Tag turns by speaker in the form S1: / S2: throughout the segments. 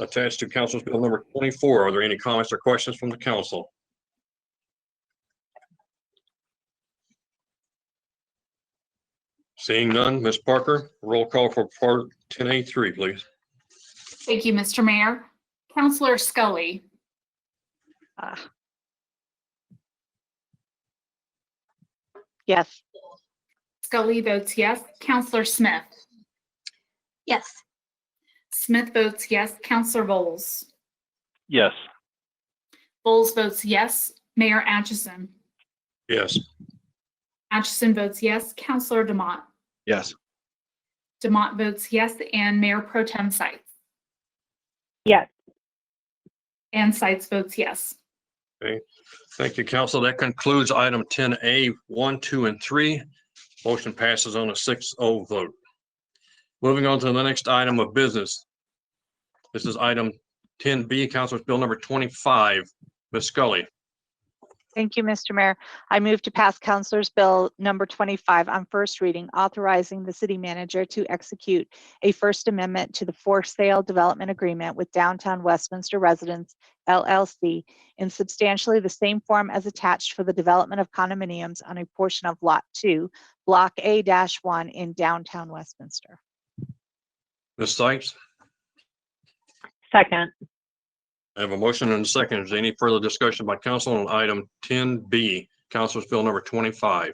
S1: attached to Council's Bill number 24. Are there any comments or questions from the council? Seeing none, Ms. Parker, roll call for Part 10A3, please.
S2: Thank you, Mr. Mayor. Counselor Scully,
S3: Ah. Yes,
S2: Scully votes yes. Counselor Smith,
S4: Yes.
S2: Smith votes yes. Counselor Bowles,
S5: Yes.
S2: Bowles votes yes. Mayor Atchison,
S1: Yes.
S2: Atchison votes yes. Counselor Demott,
S5: Yes.
S2: Demott votes yes. And Mayor Pro Tem Sights.
S3: Yes.
S2: And Sights votes yes.
S1: Thank you, council. That concludes item 10A, 1, 2, and 3. Motion passes on a 6-0 vote. Moving on to the next item of business. This is item 10B, Council's Bill number 25. Ms. Scully,
S3: thank you, Mr. Mayor. I move to pass Counselor's Bill number 25 on first reading, authorizing the city manager to execute a First Amendment to the for sale development agreement with Downtown Westminster Residents LLC in substantially the same form as attached for the development of condominiums on a portion of Lot 2, Block A-1 in downtown Westminster.
S1: Ms. Sykes,
S6: Second,
S1: I have a motion and a second. Is there any further discussion by council on item 10B, Council's Bill number 25?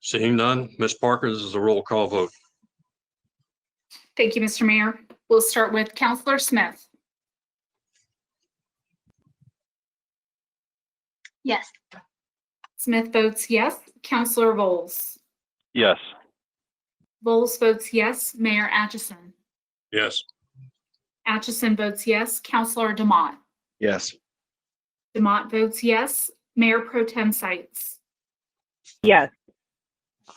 S1: Seeing none, Ms. Parker, this is a roll call vote.
S2: Thank you, Mr. Mayor. We'll start with Counselor Smith,
S4: Yes.
S2: Smith votes yes. Counselor Bowles,
S5: Yes.
S2: Bowles votes yes. Mayor Atchison,
S1: Yes.
S2: Atchison votes yes. Counselor Demott,
S5: Yes.
S2: Demott votes yes. Mayor Pro Tem Sights.
S6: yes,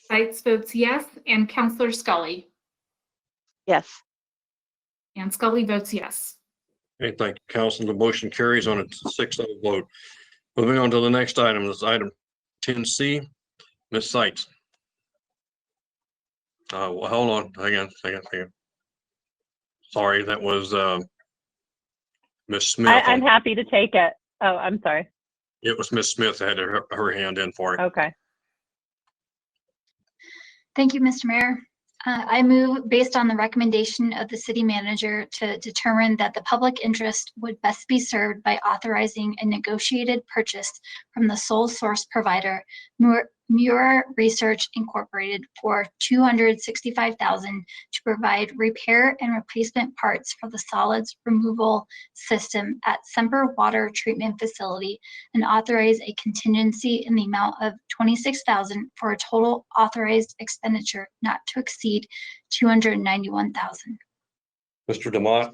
S2: Sights votes yes, and Counselor Scully.
S3: Yes.
S2: And Scully votes yes.
S1: Okay, thank you, council. The motion carries on a 6-0 vote. Moving on to the next item, this is item ten C. Ms. Sykes. Uh, well, hold on, hang on, hang on, hang on. Sorry, that was, um, Ms. Smith.
S6: I, I'm happy to take it. Oh, I'm sorry.
S1: It was Ms. Smith that had her, her hand in for it.
S6: Okay.
S4: Thank you, Mr. Mayor. Uh, I move, based on the recommendation of the city manager, to determine that the public interest would best be served by authorizing a negotiated purchase from the sole source provider, Muir Muir Research Incorporated, for $265,000 to provide repair and replacement parts for the solids removal system at Semper Water Treatment Facility and authorize a contingency in the amount of twenty-six thousand for a total authorized expenditure not to exceed two hundred and ninety-one thousand.
S1: Mr. Demott,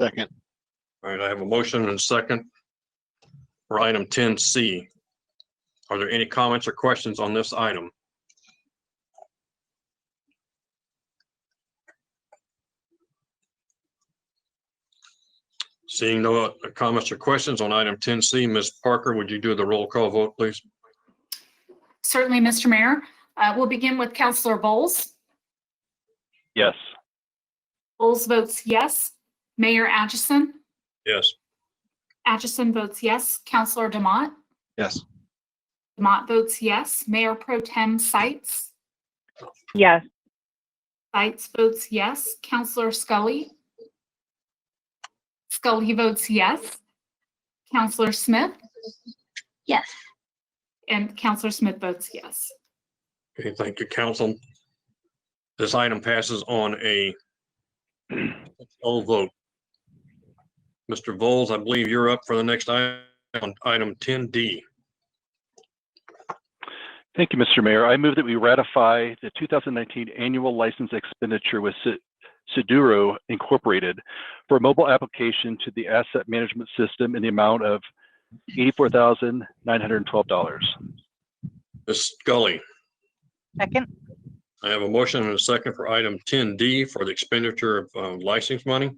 S5: Second.
S1: all right, I have a motion and a second for item ten C. Are there any comments or questions on this item? Seeing no uh, comments or questions on item ten C, Ms. Parker, would you do the roll call vote, please?
S2: Certainly, Mr. Mayor. Uh, We'll begin with Counselor Bowles.
S5: Yes.
S2: Bowles votes yes. Mayor Atchison.
S1: Yes.
S2: Atchison votes yes. Counselor Demott.
S5: Yes.
S2: Demott votes yes. Mayor Pro Tem Sights.
S6: Yes,
S2: Sights votes yes. Counselor Scully. Scully votes yes. Counselor Smith
S4: Yes.
S2: and Counselor Smith votes yes.
S1: Okay, thank you, council. This item passes on a all vote. Mr. Voles, I believe you're up for the next item, on item 10D.
S5: Thank you, Mr. Mayor. I move that we ratify the 2019 annual license expenditure with Se- Seduro Incorporated for a mobile application to the asset management system in the amount of $84,912.
S1: Ms. Scully,
S3: Second?
S1: I have a motion and a second for item 10D for the expenditure of uh, license money.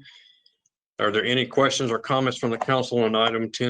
S1: Are there any questions or comments from the council on item 10?